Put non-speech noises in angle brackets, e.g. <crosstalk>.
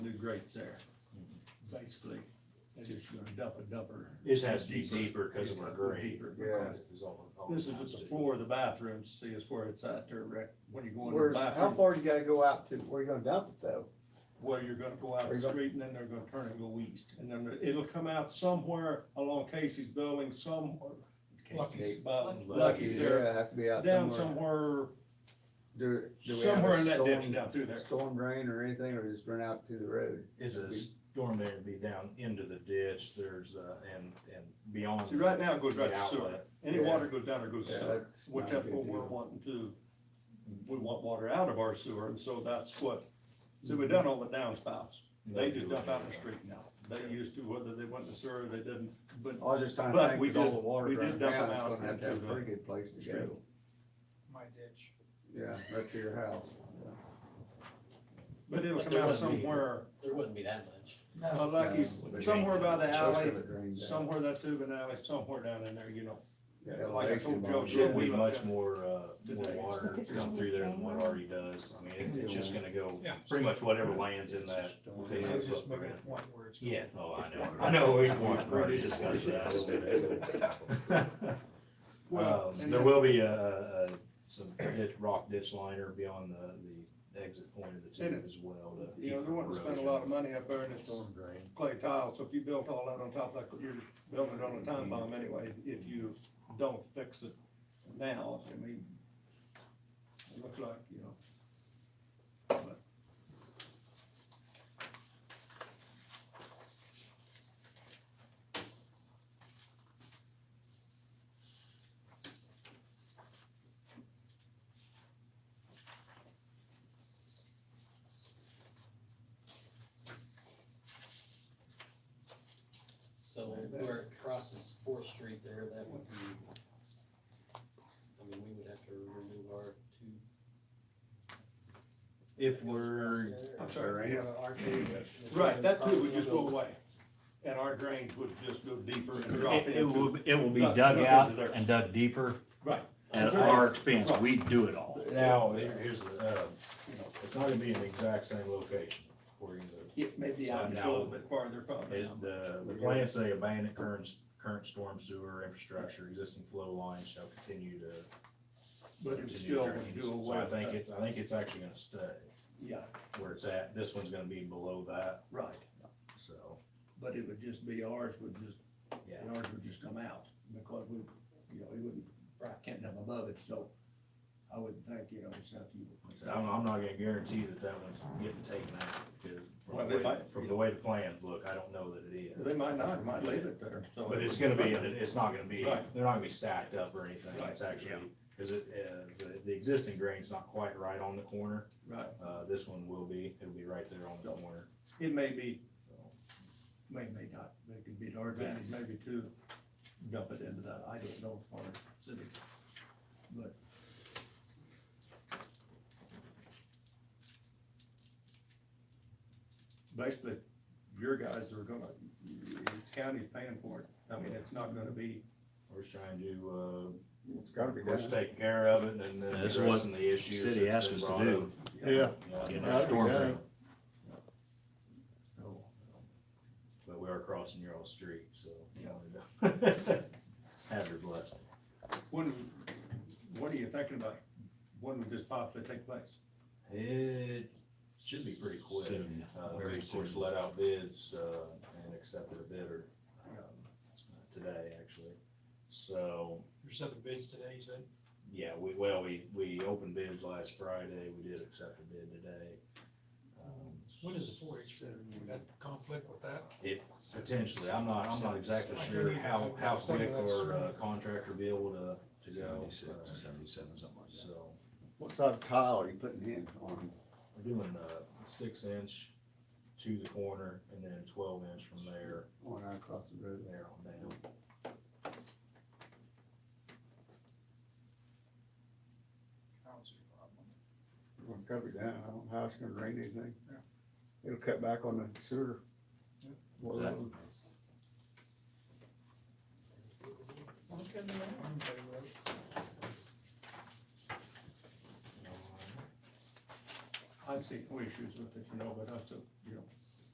grates there, Mm-hmm. basically. They just gonna dump a dumper. It just has to be deeper because of our grade. Deeper, Yeah. because This is at the floor of the bathroom, see is where it's at there, Rick, when you go into the Where's, how bathroom, far do you gotta go out to, where you gonna dump it though? where you're gonna go out Where the you go- street, and then they're gonna turn and go east. And then it'll come out somewhere along Casey's building, some, Casey's. uh, Lucky's. Lucky's there, Yeah, have to be out down somewhere. somewhere, Do- do we have a somewhere in that storm- ditch down through there. Storm drain or anything, or just run out to the road? Is a storm there to be down into the ditch, there's, uh, and, and beyond. See, right now it goes the right to sewer, outlet. any Yeah. water goes down or goes to Yeah, sewer. that's Which not a that's good what we're deal. wanting to, we want water out of our sewer, and so that's what, so we done all the downspouts. They just dump out in the street now. They used to, whether they went to sewer or they didn't, but I was just trying to But think, we with all did- the water we did running dump down, them it's out gonna have to have into a the pretty good place to street. go. my ditch. Yeah, right to your house. but it'll But come there out wouldn't be- somewhere, There wouldn't be that much. uh, lucky, No, they somewhere by the Most alley, of it drains out. somewhere that tube and alley, somewhere down in there, you know. Yeah, like I elevation told Joe, model. Shouldn't be Yeah. much more, uh, more Today. water come through there than what already does. I mean, it- it's just gonna go, Yeah. pretty much whatever lands in that. they I was hook just up making around. a point where it's. Yeah, oh, I <laughs> know, I know, we already discussed that a little bit. Well, Um, and There then- will be a, a, a- some ditch, rock ditch liner beyond the, the exit point of the tube And- as well to. You know, keep they want to spend a erosion. lot of money up there and it's clay tile, so if you built all that on top, like you're building it on a time bomb anyway, if you don't fix it now, I mean, it looks like, you know. but- So where it crosses Fourth Street there, that would be, I mean, we would have to remove our two. If we're, I'm sorry, yeah. Our two- the Right, that too would property just go will- away, and our drains would just go deeper and drop It, it into. will, it will be Duck- dug duck out into there. and dug deeper Right. at our expense. We do it all. now, here- here's the, uh, it's not gonna be in the exact same location according to It may be out just a little bit farther probably. Is the, the plan say abandoned current, current storm sewer infrastructure, existing flow lines shall continue to. But it continue still would drains. do So away I with think that, it's, I think it's actually gonna stay yeah, where it's at, this one's gonna be below that, right, so, but it would just be ours would just yeah. And ours would just come out because we, you know, we wouldn't, Right. can't dump above it, so I wouldn't think, you know, it's up to you. Like I said, I'm, I'm not gonna guarantee that that one's getting taken out, because Well, from they the way, might- from the way the plans look, I don't know that it is. They might not, might leave it there, so. But it's gonna be, it's not gonna be, Right. they're not gonna be stacked up or anything, Right, it's actually, cause it, uh, the, the existing drain's not quite right on the corner. Right, Uh, this one will be, it'll be right there on the corner, it may be, so. may, may not, but it could be to our advantage maybe to dump it into that, I don't know for the city. But basically, your guys are gonna, it's county's paying for it, I mean, it's not gonna be We're just trying to, <laughs> It's gotta uh, be we're just done. taking care of it and then That's what addressing the issues. city that's asked been us to brought do. up. You Yeah. know, storm Yeah. drain. So, But we are crossing your old street, so. Yeah. <laughs> Have your blessing. When, what are you thinking about? When would this possibly take place? It should be pretty quick. Soon, Uh, very we of course soon. let out bids, uh, and accepted a bidder, um, today actually. So, There's seven bids today, you said? Yeah, we, well, we, we opened bids last Friday, we did accept a bid today. Um, What is the four H, would that conflict with that? It, potentially, I'm not, I'm not exactly sure how, how quick our uh, contractor be able to, to go. uh, seventy-seven, something like So, What side of tile are you putting in on? we're doing, uh, six inch to the corner and then twelve inch from there, On out across the road? there on down. I don't see a problem. Well, It's gotta be done. I don't know how it's gonna drain anything. Yeah. It'll cut back on the sewer. Yeah. Well, um, I'm in favor of it. I've seen no issues with it, you know, but I still, you know,